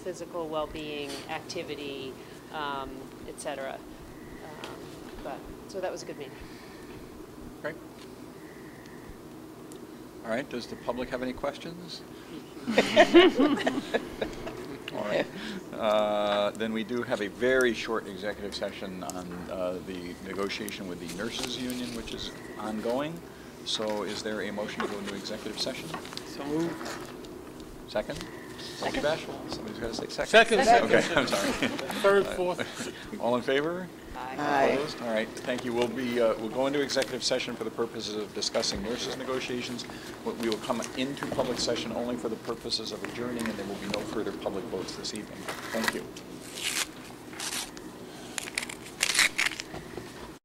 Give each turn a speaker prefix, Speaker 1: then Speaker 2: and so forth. Speaker 1: physical well-being, activity, um, et cetera. Um, But, so that was a good meeting.
Speaker 2: Great. All right, does the public have any questions? All right. Uh, Then we do have a very short executive session on uh, the negotiation with the nurses' union, which is ongoing. So is there a motion to go into executive session?
Speaker 3: So moved.
Speaker 2: Second? Don't be bashful. Somebody's got to say second.
Speaker 3: Second. Second.
Speaker 2: Okay, I'm sorry.
Speaker 3: Third, fourth.
Speaker 2: All in favor?
Speaker 3: Aye.
Speaker 2: Opposed? All right, thank you. We'll be, uh, we'll go into executive session for the purposes of discussing nurses' negotiations. We- We will come into public session only for the purposes of adjourning, and there will be no further public votes this evening. Thank you.